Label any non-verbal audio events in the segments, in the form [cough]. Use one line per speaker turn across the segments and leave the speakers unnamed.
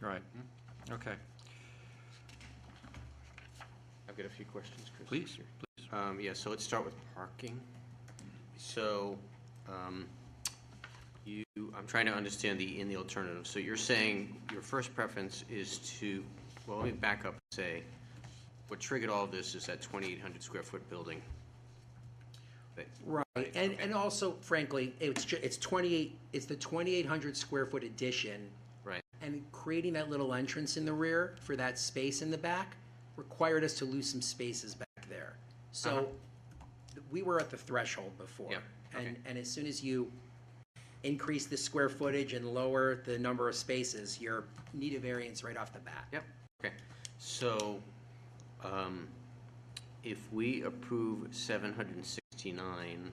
Right, okay,
I've got a few questions, Chris.
please, please.
Um, yeah, so let's start with parking. So, um, you, I'm trying to understand the, in the alternative. So you're saying your first preference is to, well, let me back up and say, what triggered all this is that twenty-eight hundred square foot building. That-
Right, and, and also frankly, it's ju, it's twenty-eight, it's the twenty-eight hundred square foot addition,
Right,
and creating that little entrance in the rear for that space in the back required us to lose some spaces back there. So, we were at the threshold before.
Uh-huh. Yeah,
And,
okay.
and as soon as you increase the square footage and lower the number of spaces, you're need a variance right off the bat.
yep, okay. So, um, if we approve seven hundred and sixty-nine,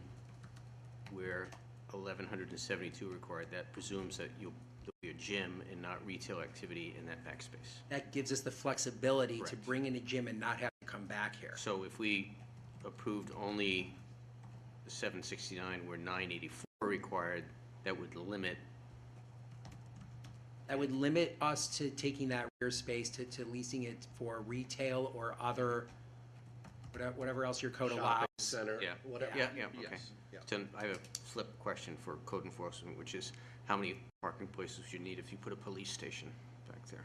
where eleven hundred and seventy-two required, that presumes that you'll, there'll be a gym and not retail activity in that backspace.
That gives us the flexibility to
Correct.
bring in a gym and not have to come back here.
So if we approved only the seven sixty-nine where nine eighty-four required, that would limit,
That would limit us to taking that rear space to, to leasing it for retail or other, whatever, whatever else your code allows.
shopping center,
Yeah.
whatever.
yeah, yeah, okay.
Yes, yeah.
So I have a flip question for code enforcement, which is how many parking places you need if you put a police station back there?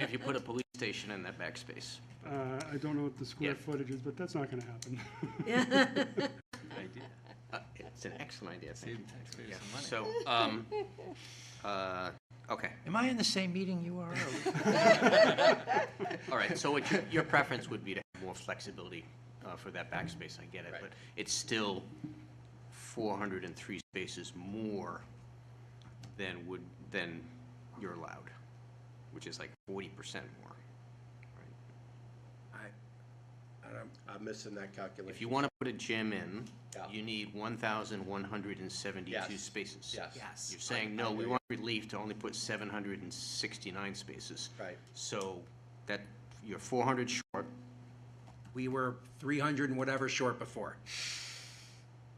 If you put a police station in that backspace.
Uh, I don't know what the square
Yeah.
footage is, but that's not gonna happen. [laughs]
Uh, It's an excellent idea, thank you. Yeah, So, um, uh, okay.
Am I in the same meeting you are?
All right, so what your, your preference would be to have more flexibility uh, for that backspace, I get it, but it's still 403 spaces more than would, than you're allowed, which is like 40% more.
I, I don't,
I'm missing that
If
calculation.
you want to put a gym in,
Yeah.
you need 1,172
Yes.
spaces.
Yes.
Yes.
You're saying,
I
no, we
agree.
want relief to only put 769 spaces.
Right.
So that, you're 400 short,
we were three hundred and whatever short before.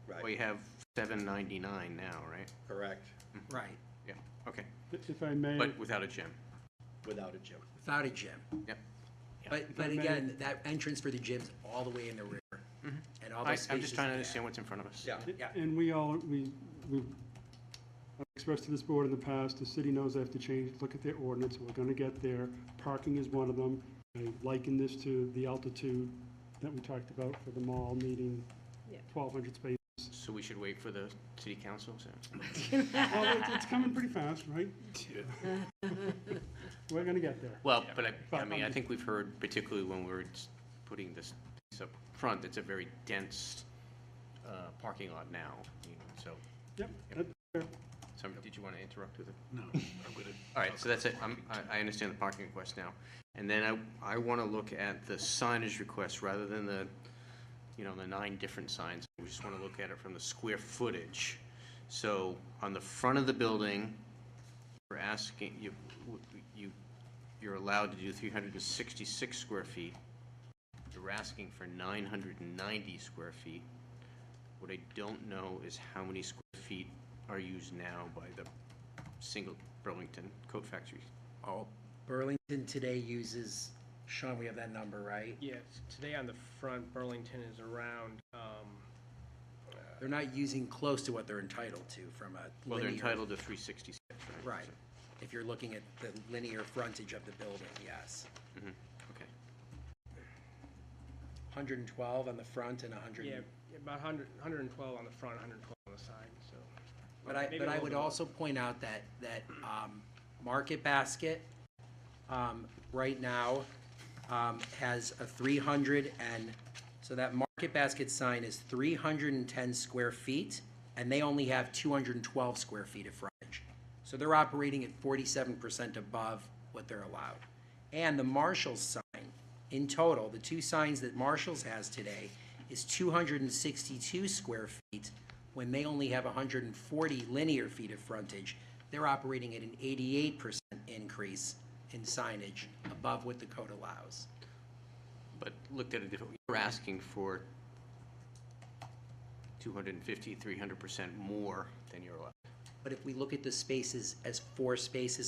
well, you
Right,
have 799 now, right?
correct,
Right,
Yeah, okay.
If I
Mm-hmm.
may,
But without a gym.
without a gym.
without a gym.
Yep.
But, but again, that entrance for the gym's all the way in the rear. And all
Mm-hmm. I,
those spaces.
I'm just trying to
in there.
understand what's in front of us.
Yeah,
yeah.
and we all, we, we I've expressed to this board in the past, the city knows they have to change, look at their ordinance, we're gonna get there. Parking is one of them. I liken this to the altitude that we talked about for the mall needing twelve hundred spaces.
So we should wait for the city council, so?
Well, it's, it's coming pretty fast,
[laughs]
right? We're gonna get there.
Well, but I, I
But
mean, I
um,
I'm-
think we've heard, particularly when we we're s- putting this piece up front, it's a very dense, uh, parking lot now, you know, so.
Yep, that- yeah.
So, did you want to interrupt with it? No, [laughs] All right, so that's it. I'm, I, I understand the parking request now. And then I, I want to look at the signage request rather than the, you know, the nine different signs. We just want to look at it from the square footage. So on the front of the building, we're asking, you, you, you're allowed to do three hundred and sixty-six square feet. You're asking for nine hundred and ninety square feet. What I don't know is how many square feet are used now by the single Burlington coat factory.
Oh, Burlington today uses, Sean, we have that number, right?
Yes, today on the front, Burlington is around, um,
They're not using close to what they're entitled to from a linear.
Well, they're entitled to three sixty-six, right?
Right, if you're looking at the linear frontage of the building, yes.
Mhm, Okay.
112 on the front and 100.
yeah, about 100, 112 on the front, 112 on the side, so.
But I,
Maybe
but
a
I
little
would
bit more.
also point out that, that um, Market Basket um, right now um, has a 300 and, so that Market Basket sign is 310 square feet, and they only have 212 square feet of frontage. So they're operating at 47% above what they're allowed. And the Marshall's sign, in total, the two signs that Marshall's has today is 262 square feet when they only have 140 linear feet of frontage. They're operating at an 88% increase in signage above what the code allows.
But looked at a different, you're asking for 250, 300 percent more than you're allowed.
But if we look at the spaces as four spaces